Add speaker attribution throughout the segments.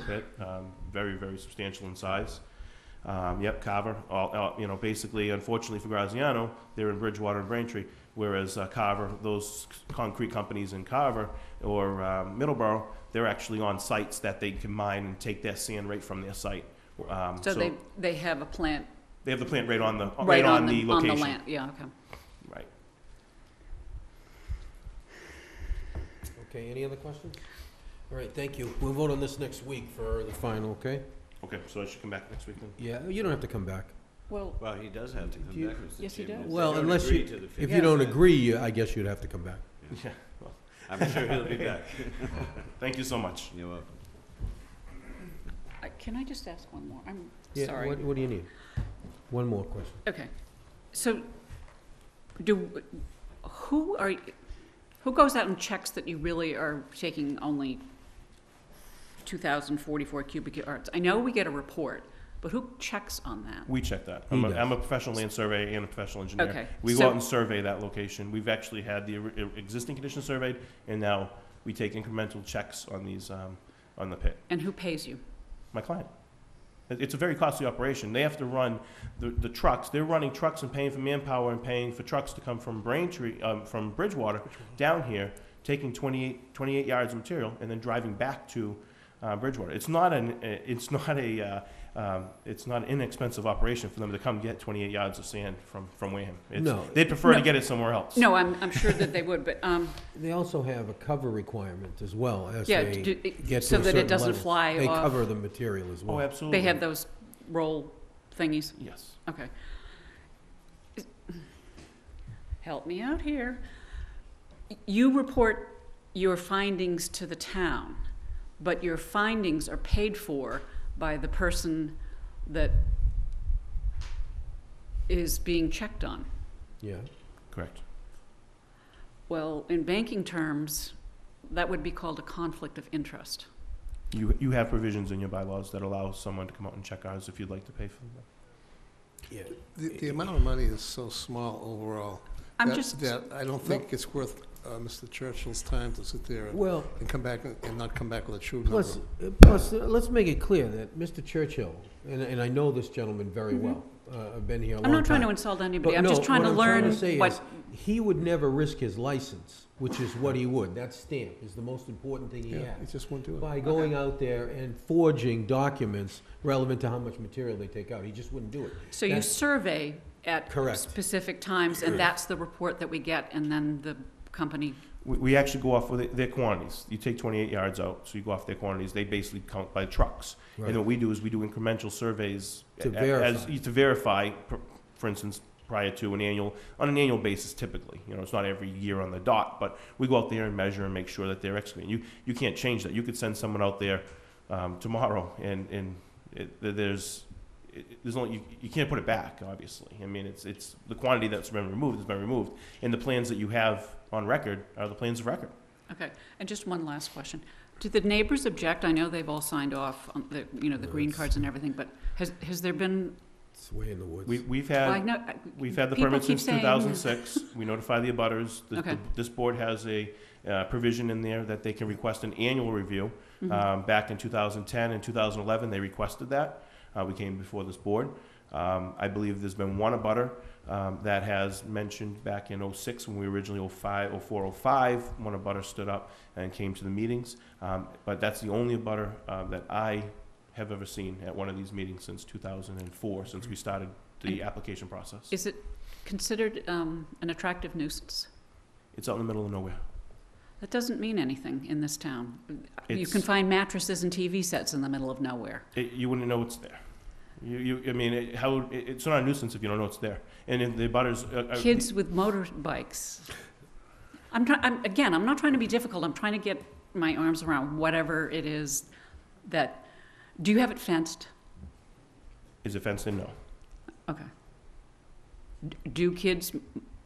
Speaker 1: pit, um, very, very substantial in size. Um, yep, Carver, all, all, you know, basically, unfortunately for Graziano, they're in Bridgewater and Braintree, whereas uh, Carver, those concrete companies in Carver or uh, Middleborough, they're actually on sites that they can mine and take their sand right from their site. Um,
Speaker 2: So they, they have a plant
Speaker 1: they have the plant right on the,
Speaker 2: right on
Speaker 1: the
Speaker 2: the, on the
Speaker 1: location.
Speaker 2: land, yeah, okay.
Speaker 1: Right.
Speaker 3: Okay, any other questions? All right, thank you. We'll vote on this next week for the final, okay?
Speaker 1: Okay, so I should come back next week then?
Speaker 3: Yeah, you don't have to come back.
Speaker 2: Well,
Speaker 4: Well, he does have to
Speaker 3: Do
Speaker 4: come
Speaker 3: you-
Speaker 4: back, Mr. Chairman.
Speaker 2: Yes, he
Speaker 4: if
Speaker 2: does.
Speaker 4: they
Speaker 3: Well,
Speaker 4: don't
Speaker 3: unless
Speaker 4: agree
Speaker 3: you-
Speaker 4: to the
Speaker 3: If you
Speaker 2: Yeah.
Speaker 3: don't
Speaker 4: 50%.
Speaker 3: agree, I guess you'd have to come back.
Speaker 1: Yeah.
Speaker 4: I'm sure he'll be back.
Speaker 1: Thank you so much.
Speaker 4: You're welcome.
Speaker 2: I- can I just ask one more? I'm
Speaker 3: Yeah,
Speaker 2: sorry.
Speaker 3: What, what do you need? One more question.
Speaker 2: Okay, so do, who are, y- who goes out and checks that you really are taking only two thousand forty-four cubic yards? I know we get a report, but who checks on that?
Speaker 1: We check that.
Speaker 3: He
Speaker 1: I'm a,
Speaker 3: does.
Speaker 1: I'm a professional land survey and a professional engineer.
Speaker 2: Okay,
Speaker 1: We
Speaker 2: so-
Speaker 1: go out and survey that location. We've actually had the ori- existing condition surveyed, and now we take incremental checks on these, um, on the pit.
Speaker 2: And who pays you?
Speaker 1: My client. It- It's a very costly operation. They have to run the, the trucks. They're running trucks and paying for manpower and paying for trucks to come from Braintree, um, from Bridgewater down here, taking 28, 28 yards of material and then driving back to uh, Bridgewater. It's not an, uh, it's not a, uh, um, it's not an inexpensive operation for them to come get 28 yards of sand from, from Wareham. It's-
Speaker 3: No.
Speaker 1: They'd prefer to
Speaker 2: No.
Speaker 1: get it somewhere else.
Speaker 2: No, I'm, I'm sure that they would, but, um,
Speaker 3: They also have a cover requirement as well as
Speaker 2: Yeah,
Speaker 3: they
Speaker 2: do-
Speaker 3: get to a
Speaker 2: so that it
Speaker 3: certain
Speaker 2: doesn't
Speaker 3: level.
Speaker 2: fly
Speaker 3: They
Speaker 2: off.
Speaker 3: cover the material as well.
Speaker 1: Oh, absolutely.
Speaker 2: they have those roll thingies,
Speaker 1: Yes.
Speaker 2: okay. Is- Help me out here. You report your findings to the town, but your findings are paid for by the person that is being checked on.
Speaker 3: Yeah,
Speaker 1: Correct.
Speaker 2: Well, in banking terms, that would be called a conflict of interest.
Speaker 1: You, you have provisions in your bylaws that allow someone to come out and check ours if you'd like to pay for them.
Speaker 3: yeah.
Speaker 5: The, the amount of money is so small overall.
Speaker 2: I'm
Speaker 5: that-
Speaker 2: just,
Speaker 5: That I don't think it's worth uh, Mr. Churchill's time to sit there and-
Speaker 3: Well,
Speaker 5: and come back and and not come back with a true number.
Speaker 3: Plus, uh, plus, uh, let's make it clear that Mr. Churchill, and, and I know this gentleman very well, uh, I've been here a
Speaker 2: Mm-hmm. I'm
Speaker 3: long time.
Speaker 2: not trying to insult anybody,
Speaker 3: But
Speaker 2: I'm just
Speaker 3: no,
Speaker 2: trying
Speaker 3: what
Speaker 2: to
Speaker 3: I'm trying
Speaker 2: learn
Speaker 3: say
Speaker 2: what
Speaker 3: is, He would never risk his license, which is what he would, that stamp is the most important thing he
Speaker 5: Yeah, he
Speaker 3: has.
Speaker 5: just won't do it.
Speaker 3: By going out there and forging documents relevant to how much material they take out, he just wouldn't do it.
Speaker 2: So you
Speaker 3: That's-
Speaker 2: survey at
Speaker 3: Correct.
Speaker 2: specific times, and that's the report that we get, and then the company,
Speaker 1: We, we actually go off with their quantities. You take 28 yards out, so you go off their quantities. They basically count by trucks.
Speaker 3: Right.
Speaker 1: And what we do is we do incremental surveys
Speaker 3: To
Speaker 1: a- a- as-
Speaker 3: verify.
Speaker 1: to verify, for- for instance, prior to an annual, on an annual basis typically. You know, it's not every year on the dot, but we go out there and measure and make sure that they're excavating. You, you can't change that. You could send someone out there um, tomorrow and, and it, th- there's, it, it- there's only, you, you can't put it back, obviously. I mean, it's, it's, the quantity that's been removed has been removed. And the plans that you have on record are the plans of record.
Speaker 2: okay. And just one last question. Did the neighbors object? I know they've all signed off on the, you know, the
Speaker 3: No,
Speaker 2: green
Speaker 3: it's-
Speaker 2: cards and everything, but has, has there been,
Speaker 3: It's way in the woods.
Speaker 1: We, we've
Speaker 2: I
Speaker 1: had,
Speaker 2: know, I-
Speaker 1: we've had the
Speaker 2: people
Speaker 1: permit
Speaker 2: keep
Speaker 1: since
Speaker 2: saying-
Speaker 1: two thousand six. We notify the abutters. The-
Speaker 2: Okay.
Speaker 1: the- This board has a uh, provision in there that they can request an annual review.
Speaker 2: Mhm.
Speaker 3: uh,
Speaker 1: Um, back in two thousand ten and two thousand eleven, they requested that. Uh, we came before this board. Um, I believe there's been one abutter, um, that has mentioned back in oh six, when we originally oh five, oh four, oh five, one abutter stood up and came to the meetings. Um, but that's the only abutter, uh, that I have ever seen at one of these meetings since two thousand and four, since we started the application process.
Speaker 2: is it considered um, an attractive nuisance?
Speaker 1: It's out in the middle of nowhere.
Speaker 2: That doesn't mean anything in this town. You can
Speaker 1: It's-
Speaker 2: find mattresses and TV sets in the middle of nowhere.
Speaker 1: It, you wouldn't know it's there. You, you, I mean, it, how, it, it's not a nuisance if you don't know it's there. And if the butters, uh, uh,
Speaker 2: kids with motorbikes. I'm trying, I'm, again, I'm not trying to be difficult, I'm trying to get my arms around whatever it is that, do you have it fenced?
Speaker 1: is it fenced in? No.
Speaker 2: Okay. D- Do kids m-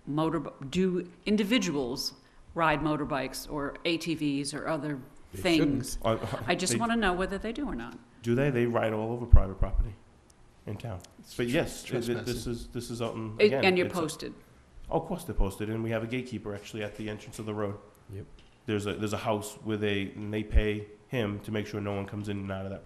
Speaker 2: motor, do individuals ride motorbikes or ATVs or other
Speaker 3: They
Speaker 2: things?
Speaker 1: Uh,
Speaker 2: I just
Speaker 1: they-
Speaker 2: want to know whether they do or not.
Speaker 1: Do they? They ride all over private property in town. But yes, th- th- this
Speaker 5: trespassing.
Speaker 1: is this is out in
Speaker 2: It-
Speaker 1: again.
Speaker 2: And you're
Speaker 1: it's-
Speaker 2: posted.
Speaker 1: Oh, of course they're posted, and we have a gatekeeper actually at the entrance of the road.
Speaker 3: Yep.
Speaker 1: There's a there's a house with a and they pay him to make sure no one comes in and out of that